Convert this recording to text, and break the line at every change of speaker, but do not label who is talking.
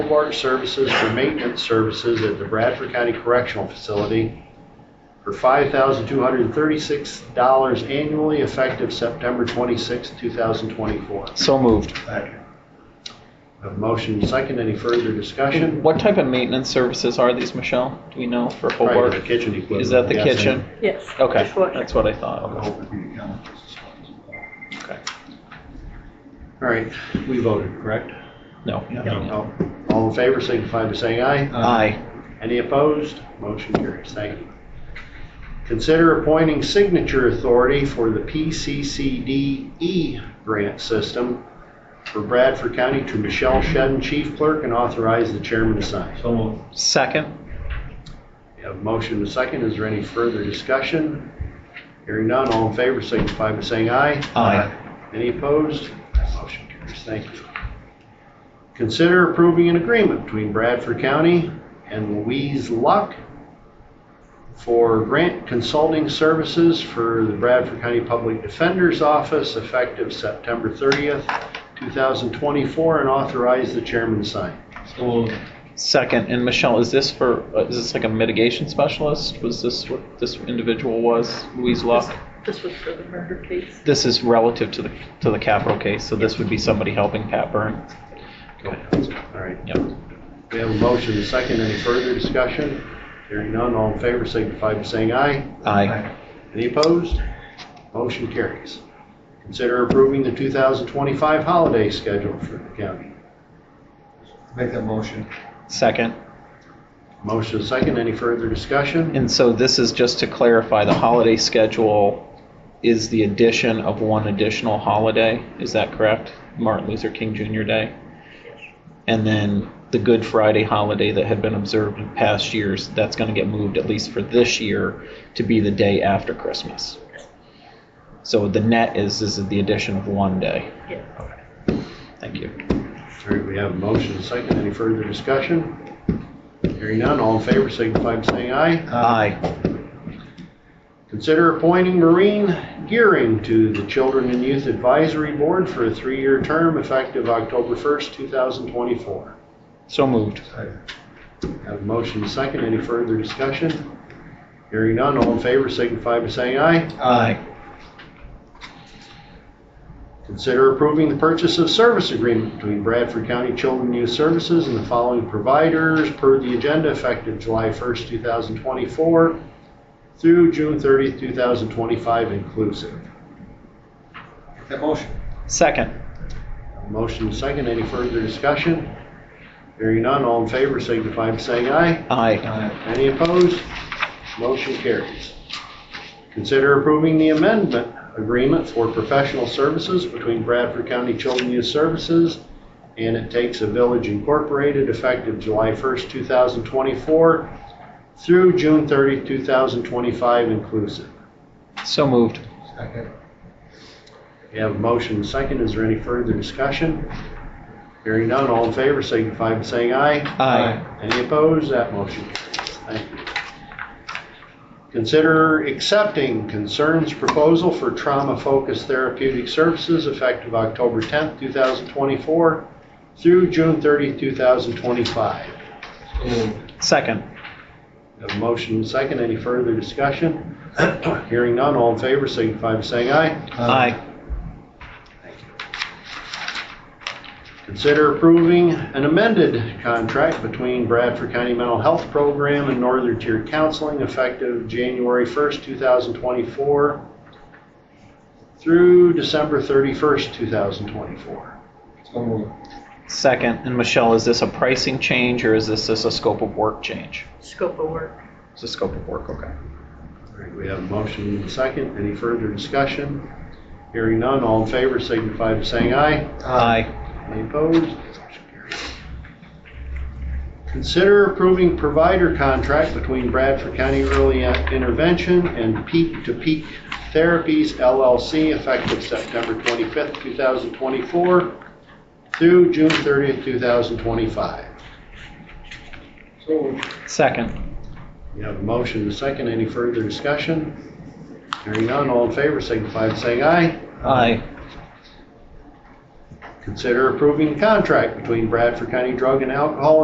water services for maintenance services at the Bradford County Correctional Facility for $5,236 annually effective September 26, 2024.
So moved.
A motion second, any further discussion?
What type of maintenance services are these, Michelle? Do we know for
Probably the
Hobart?
kitchen equipment.
Oh, Is that the
yes,
kitchen?
Yes.
Okay,
dishwasher.
that's what I thought.
and-
Okay.
All right, we voted, correct?
No.
No. All in favor, signify by saying aye.
Aye.
Any opposed? Motion carries. Thank you. Consider appointing signature authority for the PCCDE E grant system for Bradford County to Michelle Shedden, Chief Clerk, and authorize the chairman to sign.
So moved.
Second?
We have a motion and a second. Is there any further discussion? Hearing none, all in favor signify by saying aye.
Aye.
Any opposed? That Motion carries. Thank you. Consider approving an agreement between Bradford County and Louise Luck for grant consulting services for the Bradford County Public Defender's Office effective September 30th, 2024, and authorize the chairman to sign.
So moved.
Second, and Michelle, is this for, uh, is this like a mitigation specialist? Was this what this individual was, Louise Luck?
This was for the murder case.
This is relative to the, to the capital case, so this would be somebody helping Pat Byrne?
All right.
Yep.
We have a motion and a second. Any further discussion? Hearing none, all in favor signify by saying aye.
Aye.
Any opposed? Motion carries. Consider approving the 2025 holiday schedule for the county.
Make that motion.
Second,
Motion and second. Any further discussion?
and so this is just to clarify, the holiday schedule is the addition of one additional holiday, is that correct? Martin Luther King Jr. Day? And then the Good Friday holiday that had been observed in past years, that's gonna get moved, at least for this year, to be the day after Christmas. So the net is, is the addition of one day.
Yes.
Thank you.
All right, we have a motion and second. Any further discussion? Hearing none, all in favor signify by saying aye.
Aye.
Consider appointing Maureen Gearing to the Children and Youth Advisory Board for a three-year term effective October 1st, 2024.
So moved.
Have a motion and second. Any further discussion? Hearing none, all in favor signify by saying aye.
Aye.
Consider approving the purchase of service agreement between Bradford County Children and Youth Services and the following providers per the agenda effective July 1st, 2024 through June 30th, 2025 inclusive.
Make that motion.
Second.
Motion and second, any further discussion? Hearing none, all in favor signify by saying aye.
Aye.
Any opposed? Motion carries. Consider approving the amendment agreement for professional services between Bradford County Children and Youth Services and It Takes a Village Incorporated effective July 1st, 2024 through June 30th, 2025 inclusive.
So moved.
Second.
We have a motion and second. Is there any further discussion? Hearing none, all in favor signify by saying aye.
Aye.
Any opposed? That motion carries. Thank you. Consider accepting concerns proposal for trauma-focused therapeutic services effective October 10th, 2024 through June 30th, 2025.
So moved.
Second.
A motion and second. Any further discussion? Hearing none, all in favor signify by saying aye.
Aye.
Consider approving an amended contract between Bradford County Mental Health Program and Northern Tier Counseling effective January 1st, 2024 through December 31st, 2024.
So moved.
Second. And Michelle, is this a pricing change or is this just a scope of work change?
Scope of work.
It's a scope of work, okay.
All right, we have a motion and a second. Any further discussion? Hearing none, all in favor signify by saying aye.
Aye.
Any opposed? Motion carries. Consider approving provider contract between Bradford County Early Intervention and Peak to Peak Therapies LLC effective September 25th, 2024 through June 30th, 2025.
So moved.
Second.
You have a motion and a second. Any further discussion? Hearing none, all in favor signify by saying aye.
Aye.
Consider approving contract between Bradford County Drug and Alcohol